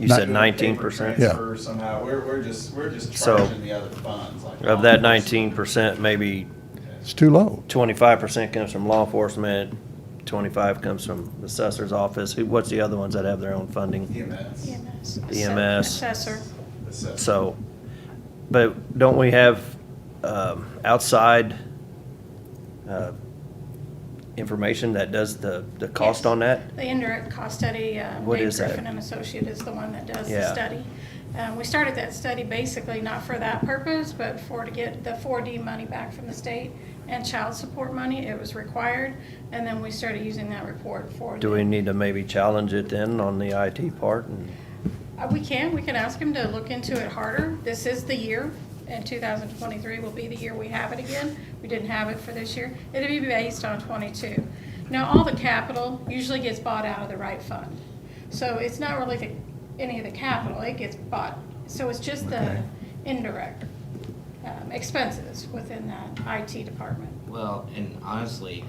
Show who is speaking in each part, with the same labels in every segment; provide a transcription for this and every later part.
Speaker 1: You
Speaker 2: Not-
Speaker 1: said nineteen percent?
Speaker 2: Yeah.
Speaker 3: Transfer somehow, we're, we're just, we're just
Speaker 1: So-
Speaker 3: charging the other funds. like-
Speaker 1: Of that nineteen percent, maybe
Speaker 2: It's too low.
Speaker 1: twenty-five percent comes from law enforcement, twenty-five comes from the assessor's office. Who, what's the other ones that have their own
Speaker 3: E
Speaker 1: funding?
Speaker 3: EMS.
Speaker 4: EMS.
Speaker 1: EMS.
Speaker 4: Assessor.
Speaker 3: assessment.
Speaker 1: So, but don't we have, um, outside, uh, information that does the, the cost
Speaker 4: Yes.
Speaker 1: on that?
Speaker 4: The indirect cost study, uh,
Speaker 1: What
Speaker 4: Dave
Speaker 1: is that?
Speaker 4: Griffin and Associate is the one that does
Speaker 1: Yeah.
Speaker 4: the study. Um, We started that study basically not for that purpose, but for to get the 4D money back from the state and child support money. It was required, and then we started using that report for.
Speaker 1: Do
Speaker 4: the-
Speaker 1: we need to maybe challenge it then on the IT part and?
Speaker 4: Uh, We can, we can ask him to look into it harder. This is the year, and 2023 will be the year we have it again. We didn't have it for this year. It'll be based on '22. Now, all the capital usually gets bought out of the right fund. So it's not really the, any of the capital, it gets bought. So it's just the
Speaker 1: Okay.
Speaker 4: indirect um, expenses within that IT department.
Speaker 5: Well, and honestly,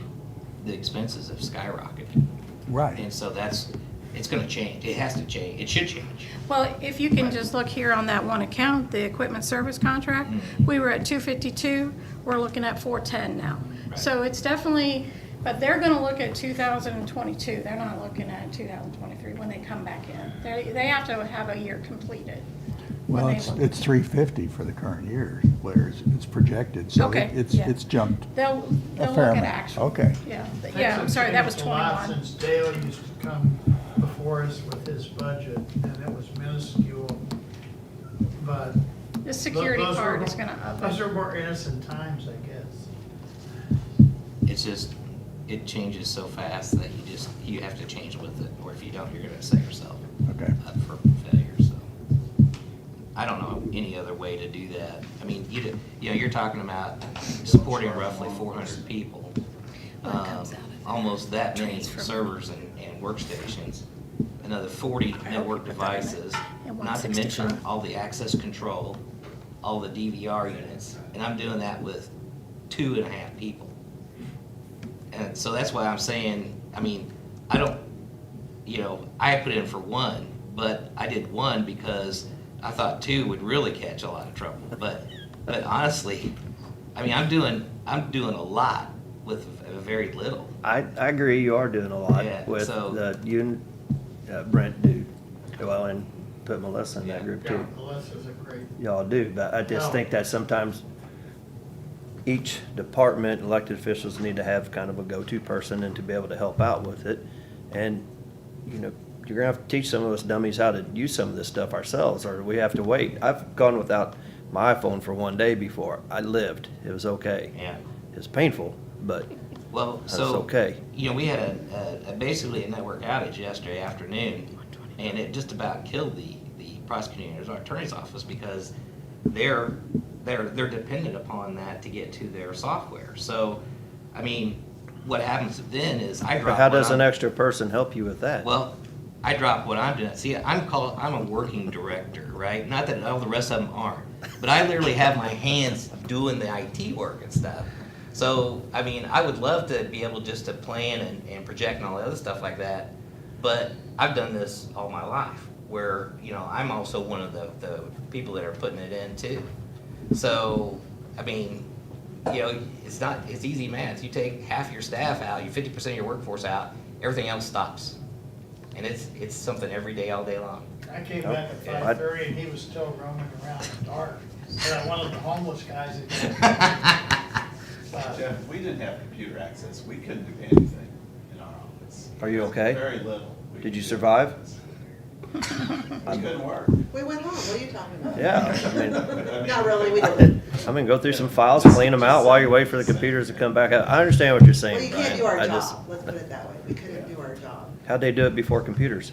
Speaker 5: the expenses have skyrocketed. And so that's, it's gonna change. It has to change. It should change.
Speaker 4: Well, if you can just look here on that one account, the equipment service contract, we were at two fifty-two, we're looking at four ten now. So it's definitely, but they're gonna look at two thousand and twenty-two, they're not looking at two thousand and twenty-three when they come back in. They, they have to have a year completed. when
Speaker 2: Well,
Speaker 4: they
Speaker 2: it's,
Speaker 4: look.
Speaker 2: it's three fifty for the current year, where it's, it's projected, so
Speaker 4: Okay,
Speaker 2: it- it's,
Speaker 4: yeah.
Speaker 2: it's jumped.
Speaker 4: They'll,
Speaker 2: A
Speaker 4: they'll
Speaker 2: fair
Speaker 4: look at
Speaker 2: amount.
Speaker 4: actual.
Speaker 2: Okay.
Speaker 4: Yeah, th- yeah, I'm sorry, that was twenty-one.
Speaker 6: Since Dale used to come before us with his budget, and it was minuscule, but.
Speaker 4: The security
Speaker 6: those were
Speaker 4: part
Speaker 6: more-
Speaker 4: is gonna up
Speaker 6: Those are
Speaker 4: it.
Speaker 6: more innocent times, I guess.
Speaker 5: It's just, it changes so fast that you just, you have to change with it, or if you don't, you're gonna set yourself
Speaker 2: Okay.
Speaker 5: up for failure, so. I don't know any other way to do that. I mean, you, did- you know, you're talking about supporting roughly four hundred people.
Speaker 4: Well, it comes
Speaker 5: Um,
Speaker 4: out of
Speaker 5: Almost that many
Speaker 4: transfer.
Speaker 5: servers and, and workstations, another forty network devices,
Speaker 4: And
Speaker 5: not to mention
Speaker 4: 165.
Speaker 5: all the access control, all the DVR units, and I'm doing that with two and a half people. And so that's why I'm saying, I mean, I don't, you know, I put in for one, but I did one because I thought two would really catch a lot of trouble. But, but honestly, I mean, I'm doing, I'm doing a lot with very little.
Speaker 1: I, I agree, you are doing a lot
Speaker 5: Yeah,
Speaker 1: with
Speaker 5: so-
Speaker 1: the, you and uh, Brent do, well, and put Melissa in that
Speaker 5: Yeah.
Speaker 1: group
Speaker 6: Yeah,
Speaker 1: too.
Speaker 6: Melissa's a great,
Speaker 1: Y'all do, but I just
Speaker 6: No.
Speaker 1: think that sometimes each department, elected officials need to have kind of a go-to person and to be able to help out with it. And, you know, you're gonna have to teach some of us dummies how to use some of this stuff ourselves, or we have to wait. I've gone without my iPhone for one day before. I lived. It was okay.
Speaker 5: Yeah.
Speaker 1: It was painful, but
Speaker 5: Well,
Speaker 1: That's
Speaker 5: so.
Speaker 1: okay.
Speaker 5: You know, we had a, a, a basically a network outage yesterday afternoon, and it just about killed the, the prosecutor's attorney's office because they're, they're, they're dependent upon that to get to their software. So, I mean, what happens then is I
Speaker 1: But
Speaker 5: drop.
Speaker 1: how
Speaker 5: what
Speaker 1: does an
Speaker 5: I'm-
Speaker 1: extra person help you with that?
Speaker 5: well, I drop what I'm doing. See, I'm called, I'm a working director, right? Not that all the rest of them aren't, but I literally have my hands doing the IT work and stuff. So, I mean, I would love to be able just to plan and, and project and all the other stuff like that, but I've done this all my life, where, you know, I'm also one of the, the people that are putting it in too. So, I mean, you know, it's not, it's easy math. You take half your staff out, you fifty percent of your workforce out, everything else stops. And it's, it's something every day, all day long.
Speaker 6: I came back at
Speaker 1: Yeah, I-
Speaker 6: five thirty and he was still roaming around in the dark, but one of the homeless guys.
Speaker 3: Jeff, if we didn't have computer access, we couldn't do anything in our office.
Speaker 1: Are you okay?
Speaker 3: Very little. we
Speaker 1: Did you
Speaker 3: could do.
Speaker 1: survive?
Speaker 3: We couldn't work.
Speaker 7: We went home, what are you talking about?
Speaker 1: Yeah, I mean,
Speaker 7: Not really, we didn't.
Speaker 1: I mean, go through some files, clean them out while you wait for the computers to come back out. I understand what you're
Speaker 7: Well,
Speaker 1: saying,
Speaker 7: you
Speaker 1: Brian.
Speaker 7: can't do our
Speaker 1: I just-
Speaker 7: job, let's put it that way. We couldn't do our job.
Speaker 1: How'd they do it before computers?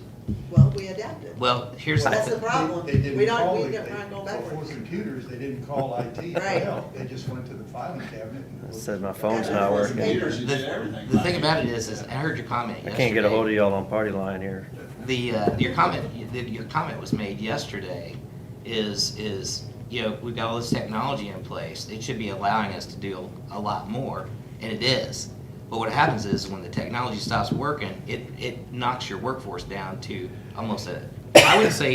Speaker 7: Well, we adapted.
Speaker 5: Well, here's, the
Speaker 7: That's
Speaker 5: thi-
Speaker 7: the problem.
Speaker 8: They- they didn't
Speaker 7: We don't,
Speaker 8: call
Speaker 7: we
Speaker 8: it-
Speaker 7: get
Speaker 8: they-
Speaker 7: not go
Speaker 8: For
Speaker 7: backwards.
Speaker 8: computers, they didn't call IT for
Speaker 7: Right.
Speaker 8: help, they just went to the filing cabinet. and
Speaker 1: I
Speaker 8: looked.
Speaker 1: said my phone's
Speaker 7: Yeah,
Speaker 1: not
Speaker 7: that's
Speaker 1: working.
Speaker 7: paper.
Speaker 3: Computers, you did everything.
Speaker 5: the thing about it is, is I heard your comment
Speaker 1: I
Speaker 5: yesterday.
Speaker 1: can't get a hold of y'all on party line here.
Speaker 5: The, uh, your comment, the- your comment was made yesterday is, is, you know, we've got all this technology in place. It should be allowing us to do a lot more, and it is. But what happens is when the technology stops working, it, it knocks your workforce down to almost a, I would say